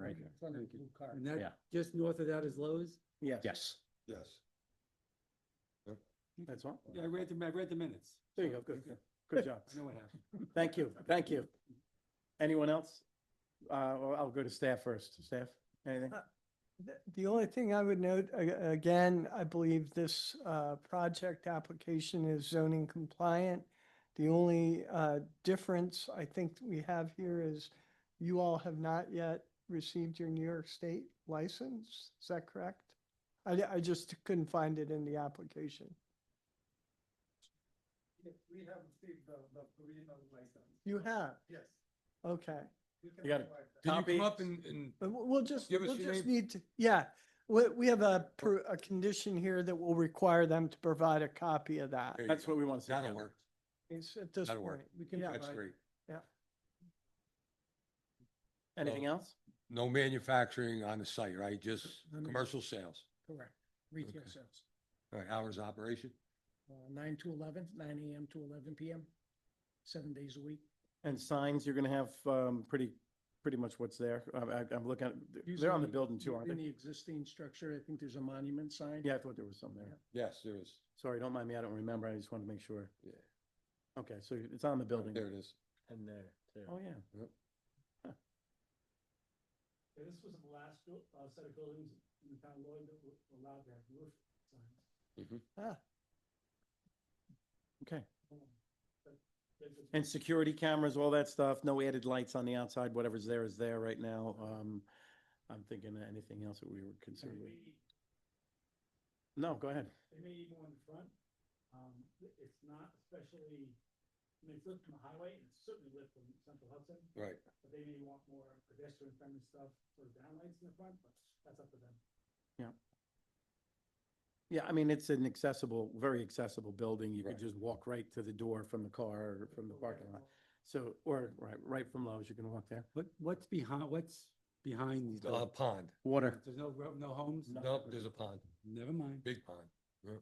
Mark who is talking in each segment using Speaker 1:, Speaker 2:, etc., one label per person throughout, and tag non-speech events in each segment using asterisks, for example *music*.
Speaker 1: It's on the
Speaker 2: Thank you.
Speaker 1: blue card.
Speaker 2: And
Speaker 3: Yeah.
Speaker 2: that, just north of that is Lowe's?
Speaker 4: Yes.
Speaker 3: Yes.
Speaker 4: Yes.
Speaker 3: That's all.
Speaker 2: Yeah, I read the, I read the minutes.
Speaker 3: There you go. Good, Good job.
Speaker 2: I know what happened.
Speaker 3: Thank you. Thank you. Anyone else? Uh, well, I'll go to staff first. Staff, anything?
Speaker 5: The- The only thing I would note, a- again, I believe this uh, project application is zoning compliant. The only uh, difference I think we have here is you all have not yet received your New York State license. Is that correct? I, di- I just couldn't find it in the application.
Speaker 1: Yes, we have received the, the original license.
Speaker 5: You have,
Speaker 1: Yes.
Speaker 5: okay.
Speaker 1: can
Speaker 3: You got it.
Speaker 1: provide that.
Speaker 6: Can you
Speaker 3: Copy.
Speaker 6: come up and, and
Speaker 5: But we'll- we'll just,
Speaker 6: Give us
Speaker 5: we'll
Speaker 6: your
Speaker 5: just
Speaker 6: name.
Speaker 5: need to, yeah. We, we have a, per- a condition here that will require them to provide a copy of that.
Speaker 6: There you
Speaker 3: That's
Speaker 6: go.
Speaker 3: what we want to see.
Speaker 6: that'll work.
Speaker 5: It's at this
Speaker 6: That'll work.
Speaker 5: point.
Speaker 1: We can
Speaker 5: Yeah.
Speaker 6: That's
Speaker 1: provide-
Speaker 6: great.
Speaker 3: Anything else?
Speaker 6: No manufacturing on the site, right? Just
Speaker 1: No man-
Speaker 6: commercial sales.
Speaker 1: Correct. Retail
Speaker 6: Okay.
Speaker 1: sales,
Speaker 6: All right, hours of operation?
Speaker 1: uh, nine to eleven, nine AM to eleven PM, seven days a week.
Speaker 3: And signs, you're going to have, um, pretty, pretty much what's there. I'm, I- I'm looking, at they're on
Speaker 1: Usually
Speaker 3: the building too, aren't
Speaker 1: In
Speaker 3: they?
Speaker 1: the existing structure, I think there's a monument sign.
Speaker 3: Yeah, I thought there was some there.
Speaker 6: Yes, there is.
Speaker 3: Sorry, don't mind me. I don't remember. I just wanted to make sure.
Speaker 6: Yeah.
Speaker 3: Okay, so it's on the building.
Speaker 6: There it is.
Speaker 4: And there, too.
Speaker 3: Oh, yeah.
Speaker 1: This was the last uh, set of buildings in the town Lloyd that were allowed to have roof signs.
Speaker 3: Mm-hmm.
Speaker 2: Ah.
Speaker 3: Okay.
Speaker 1: Um,
Speaker 3: And security cameras, all that stuff, no added lights on the outside, whatever's there is there right now. Um, I'm thinking of anything else that we would consider. No, go ahead.
Speaker 1: They may even go in front. Um, it's not especially, I mean, it's lit from the highway and it's certainly lit from Central Hudson,
Speaker 6: Right.
Speaker 1: but they may want more pedestrian friendly stuff for downlights in the front, but that's up to them.
Speaker 3: Yeah, I mean, it's an accessible, very accessible building. You could
Speaker 6: Right.
Speaker 3: just walk right to the door from the car or from the parking lot. So, or right, right from Lowe's, you can walk there.
Speaker 2: What, what's behind, what's behind these
Speaker 6: Uh,
Speaker 2: buildings?
Speaker 6: pond.
Speaker 3: Water.
Speaker 2: There's no, ro- no homes?
Speaker 6: Nope, there's a pond,
Speaker 2: Never mind.
Speaker 6: big pond. Yep.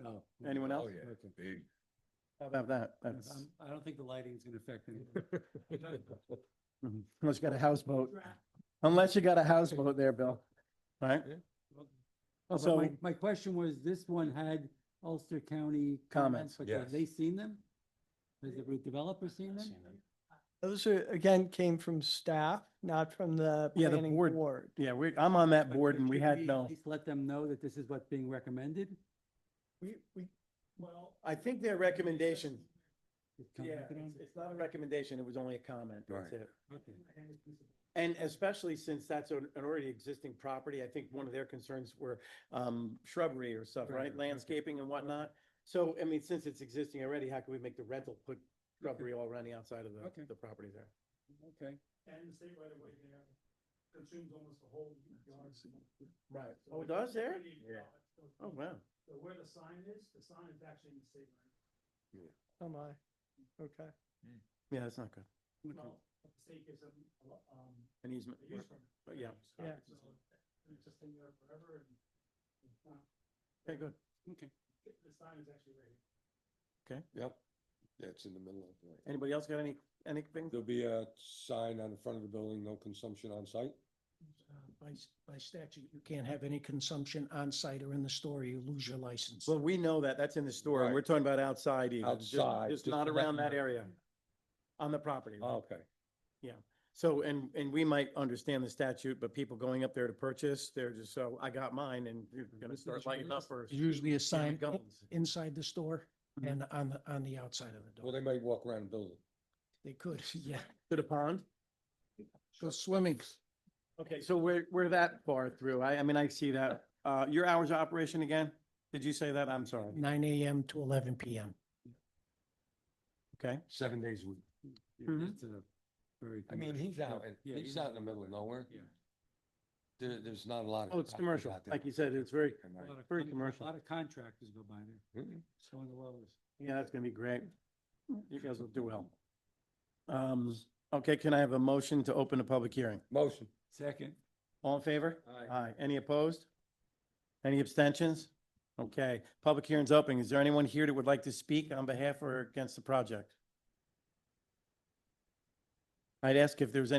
Speaker 2: No.
Speaker 3: Anyone
Speaker 6: Oh,
Speaker 3: else?
Speaker 6: yeah, big.
Speaker 3: How about that?
Speaker 1: Um,
Speaker 2: I'm-
Speaker 3: That's,
Speaker 2: I don't think the lighting's gonna affect anything.
Speaker 3: *laughs* Mhm. unless you got a houseboat, unless you got a houseboat there, Bill. All right?
Speaker 2: But
Speaker 3: Oh, So-
Speaker 2: my, my question was, this one had Ulster County comments,
Speaker 3: Comments,
Speaker 2: but have
Speaker 6: yes.
Speaker 2: they seen them? Has the developer seen them?
Speaker 5: Those are, again, came from staff, not from the
Speaker 3: Yeah, the
Speaker 5: planning
Speaker 3: board-
Speaker 5: board.
Speaker 3: Yeah, we, I'm on that
Speaker 2: But-
Speaker 3: board
Speaker 2: but
Speaker 3: and we
Speaker 2: shouldn't
Speaker 3: had no,
Speaker 2: At least let them know that this is what's being recommended?
Speaker 3: we, we,
Speaker 1: Well.
Speaker 3: I think their recommendation,
Speaker 2: Just
Speaker 3: yeah,
Speaker 2: comment on
Speaker 3: it's,
Speaker 2: it?
Speaker 3: it's not a recommendation, it was only a comment, that's
Speaker 6: Right.
Speaker 3: it.
Speaker 2: Okay.
Speaker 3: And especially since that's an an already existing property, I think one of their concerns were um, shrubbery or stuff,
Speaker 2: Right, right,
Speaker 3: right?
Speaker 2: right.
Speaker 3: Landscaping and whatnot. So, I mean, since it's existing already, how can we make the rental put shrubbery all around the outside of
Speaker 2: Okay.
Speaker 3: the, the property there?
Speaker 2: Okay.
Speaker 1: And the state right away there consumes almost the whole yard.
Speaker 3: Right.
Speaker 1: So
Speaker 3: Oh, it
Speaker 1: it's
Speaker 3: does
Speaker 1: a
Speaker 3: there?
Speaker 1: pretty-
Speaker 4: Yeah.
Speaker 3: Oh, wow.
Speaker 1: So where the sign is, the sign is actually in the state.
Speaker 5: Oh my, okay.
Speaker 3: Yeah, that's not good.
Speaker 1: right of way. Well, the state gives them, a lo- um,
Speaker 3: An easement.
Speaker 1: a use permit.
Speaker 3: But Oh, yeah.
Speaker 5: Yeah.
Speaker 1: So It's just in there forever and it's not,
Speaker 3: Okay, good.
Speaker 1: the sign is actually right here.
Speaker 6: Yep. Yeah, it's in the middle of it.
Speaker 3: Anybody else got any, anything?
Speaker 6: There'll be a sign on the front of the building, no consumption on site.
Speaker 1: uh, By, s- by statute, you can't have any consumption on site or in the store, you lose your license.
Speaker 3: Well, we know that, that's in the store, and we're talking about outside even. just-
Speaker 6: Outside,
Speaker 3: Just
Speaker 6: just Oh,
Speaker 3: not
Speaker 6: to let
Speaker 3: around
Speaker 6: you
Speaker 3: that
Speaker 6: know.
Speaker 3: area. On the property. right?
Speaker 6: Okay.
Speaker 3: So, and, and we might understand the statute, but people going up there to purchase, they're just, so I got mine and you're gonna
Speaker 1: This is
Speaker 3: start
Speaker 1: what
Speaker 3: lighting
Speaker 1: it
Speaker 3: up
Speaker 1: is.
Speaker 3: for.
Speaker 1: There's Usually a
Speaker 3: Tommy
Speaker 1: sign i-
Speaker 3: Guns.
Speaker 1: inside the store
Speaker 3: Mhm.
Speaker 1: and on the, on the outside of the
Speaker 6: Well,
Speaker 1: door.
Speaker 6: they might walk around the building.
Speaker 1: They could, *laughs* yeah,
Speaker 3: To the pond?
Speaker 1: go swimming.
Speaker 3: Okay, so we're, we're that far through. I, I mean, I see that. Uh, your hours of operation again? Did you say that? I'm sorry.
Speaker 1: nine AM to eleven PM.
Speaker 3: Okay.
Speaker 6: Seven days a week.
Speaker 2: Yeah,
Speaker 3: Mhm.
Speaker 2: that's a very
Speaker 6: I mean,
Speaker 2: commercial-
Speaker 6: he's out, in-
Speaker 2: Yeah,
Speaker 6: he's out in the middle of nowhere.
Speaker 2: Yeah.
Speaker 6: There, there's not a lot of.
Speaker 3: Oh, it's
Speaker 6: properties
Speaker 3: commercial.
Speaker 6: out there.
Speaker 3: Like you said, it's very,
Speaker 2: A lot of
Speaker 3: Very
Speaker 2: con-
Speaker 3: commercial.
Speaker 2: A lot of contractors go by there,
Speaker 6: Mhm.
Speaker 2: so in the world.
Speaker 3: yeah, that's gonna be great. You guys will do well.
Speaker 2: Mm-hmm.
Speaker 3: Um, okay, can I have a motion to open a public hearing?
Speaker 6: Motion.
Speaker 2: Second.
Speaker 3: All in favor?
Speaker 6: Aye.
Speaker 3: Aye. Any opposed? Any abstentions? Okay, public hearing's open. Is there anyone here that would like to speak on behalf or against the project? I'd ask if there's any.